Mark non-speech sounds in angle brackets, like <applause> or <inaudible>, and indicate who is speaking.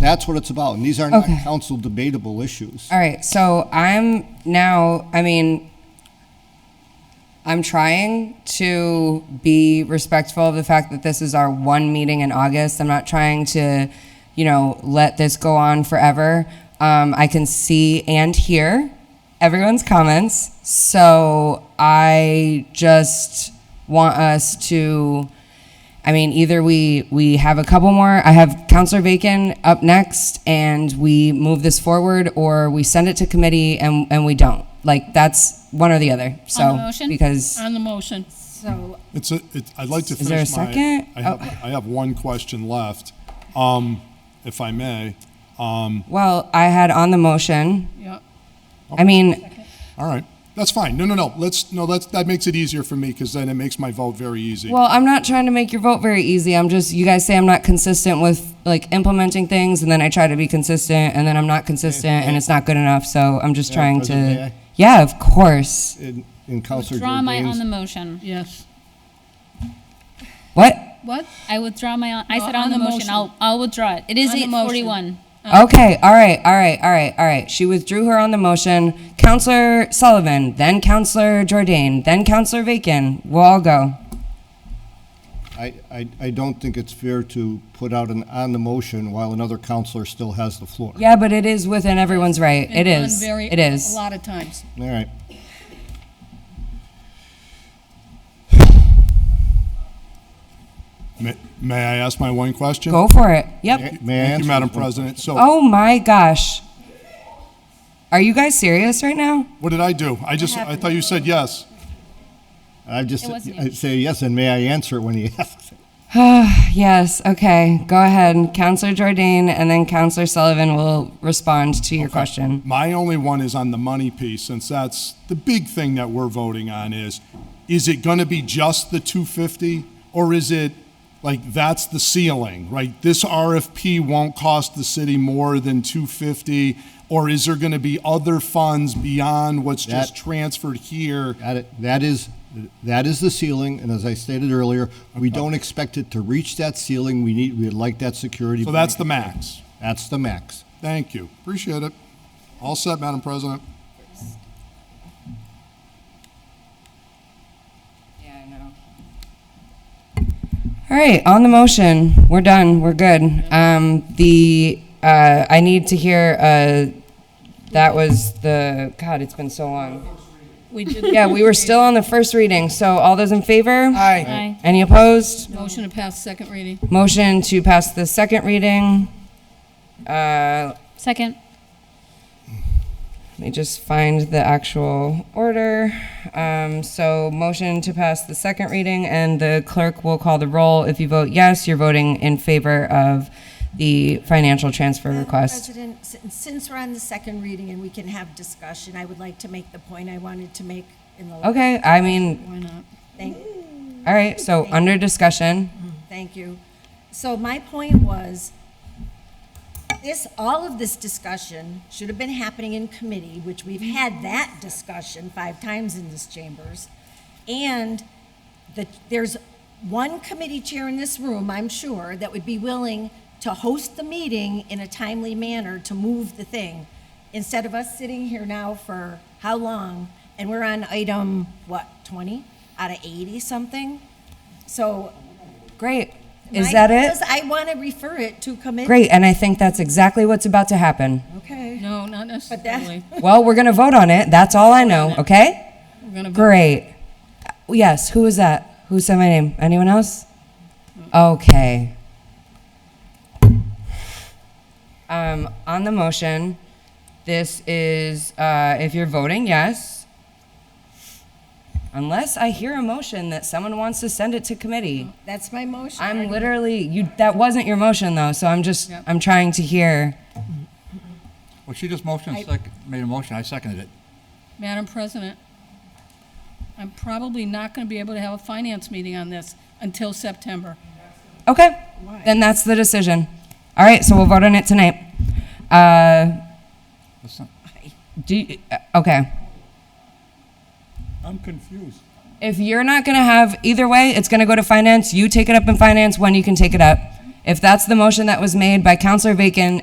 Speaker 1: That's what it's about, and these are not
Speaker 2: Okay.
Speaker 1: council debatable issues.
Speaker 2: All right, so I'm now, I mean, I'm trying to be respectful of the fact that this is our one meeting in August. I'm not trying to, you know, let this go on forever. Um, I can see and hear everyone's comments, so I just want us to. I mean, either we we have a couple more. I have Counselor Bacon up next, and we move this forward, or we send it to committee and and we don't. Like that's one or the other. So
Speaker 3: On the motion? Uh.
Speaker 2: because
Speaker 3: On the motion.
Speaker 4: So,
Speaker 5: It's a, it, I'd like to
Speaker 2: Is there a
Speaker 5: finish my.
Speaker 2: second?
Speaker 5: I have, I have one question left, um, if I may. Um,
Speaker 2: well, I had on the motion.
Speaker 3: Yeah.
Speaker 2: I mean,
Speaker 5: all right, that's fine. No, no, no, let's, no, that's, that makes it easier for me, because then it makes my vote very easy.
Speaker 2: well, I'm not trying to make your vote very easy. I'm just you guys say I'm not consistent with like implementing things, and then I try to be consistent, and then I'm not consistent, and it's not good enough. So I'm just trying to.
Speaker 1: President, may I?
Speaker 2: Yeah, of course.
Speaker 1: In in Counselor
Speaker 6: Withdraw my on the
Speaker 1: Jordan's,
Speaker 6: motion.
Speaker 3: Yes.
Speaker 2: What?
Speaker 3: What?
Speaker 6: I withdraw my, on- I said
Speaker 3: Oh,
Speaker 6: on the motion, I'll, I'll withdraw it. It is
Speaker 3: On the
Speaker 6: eight
Speaker 3: motion.
Speaker 6: forty-one.
Speaker 3: Uh.
Speaker 2: Okay, all right, all right, all right, all right. She withdrew her on the motion. Counselor Sullivan, then Counselor Jordan, then Counselor Bacon. We'll all go.
Speaker 1: I, I, I don't think it's fair to put out an on the motion while another counselor still has the floor.
Speaker 2: Yeah, but it is within everyone's right. It
Speaker 3: Been done
Speaker 2: is.
Speaker 3: very-
Speaker 2: It is.
Speaker 3: A lot of times.
Speaker 1: All right.
Speaker 5: May, may I ask my one question?
Speaker 2: Go for it. Yep.
Speaker 1: May I
Speaker 5: Thank
Speaker 1: answer
Speaker 5: you, Madam
Speaker 1: this one?
Speaker 5: President. So,
Speaker 2: Oh my gosh. Are you guys serious right now?
Speaker 5: what did I do? I just, I thought you said yes.
Speaker 1: I just,
Speaker 6: It wasn't
Speaker 1: I say yes, and may I answer it when he <laughs> asks? it?
Speaker 2: Ah, Yes, okay. Go ahead. Counselor Jordan and then Counselor Sullivan will respond to your question.
Speaker 5: My only one is on the money piece, since that's the big thing that we're voting on is, is it gonna be just the two fifty? Or is it, like, that's the ceiling, right? This RFP won't cost the city more than two fifty? Or is there gonna be other funds beyond what's just
Speaker 1: That-
Speaker 5: transferred here?
Speaker 1: That, i- that is, that is the ceiling, and as I stated earlier, we don't expect it to reach that ceiling. We need, we'd like that security.
Speaker 5: So that's the max.
Speaker 1: That's the max.
Speaker 5: Thank you. Appreciate it. All set, Madam President.
Speaker 2: Yeah, I know. All right, on the motion, we're done, we're good. Um, the, uh, I need to hear, uh, that was the, God, it's been so long.
Speaker 3: We did.
Speaker 2: <laughs> Yeah, we were still on the first reading, so all those in favor? Aye.
Speaker 6: Aye.
Speaker 2: Any opposed?
Speaker 3: Motion to pass second reading.
Speaker 2: Motion to pass the second reading. Uh,
Speaker 6: Second.
Speaker 2: Let me just find the actual order. Um, so motion to pass the second reading and the clerk will call the roll. If you vote yes, you're voting in favor of the financial transfer
Speaker 4: Madam
Speaker 2: request.
Speaker 4: President, sin- since we're on the second reading and we can have discussion, I would like to make the point I wanted to make in the.
Speaker 2: Okay, I mean,
Speaker 3: Why not?
Speaker 4: Thank,
Speaker 2: all right, so under discussion.
Speaker 4: thank you. So my point was, this, all of this discussion should have been happening in committee, which we've had that discussion five times in this chambers. And that there's one committee chair in this room, I'm sure, that would be willing to host the meeting in a timely manner to move the thing, instead of us sitting here now for how long? And we're on item, what, 20 out of 80 something? So.
Speaker 2: Great. Is
Speaker 4: my-
Speaker 2: that it?
Speaker 4: because I want to refer it to committee.
Speaker 2: Great, and I think that's exactly what's about to happen.
Speaker 4: Okay.
Speaker 3: No, not necessarily.
Speaker 2: Well, we're gonna vote on it. That's all I know, okay?
Speaker 3: We're gonna vote.
Speaker 2: Great. Yes, who was that? Who said my name? Anyone else? Okay. Um, on the motion, this is, uh, if you're voting yes, unless I hear a motion that someone wants to send it to committee.
Speaker 4: That's my motion.
Speaker 2: I'm literally, you, that wasn't your motion though, so I'm just,
Speaker 3: Yep.
Speaker 2: I'm trying to hear.
Speaker 7: Well, she just motioned, sec- made a motion, I seconded it.
Speaker 3: Madam President, I'm probably not gonna be able to have a finance meeting on this until September.
Speaker 2: Okay, then that's the decision. All right, so we'll vote on it tonight. Uh,
Speaker 7: That's not-
Speaker 2: do, you- uh, okay.
Speaker 7: I'm confused.
Speaker 2: If you're not gonna have, either way, it's gonna go to finance, you take it up in finance when you can take it up. If that's the motion that was made by Counselor Bacon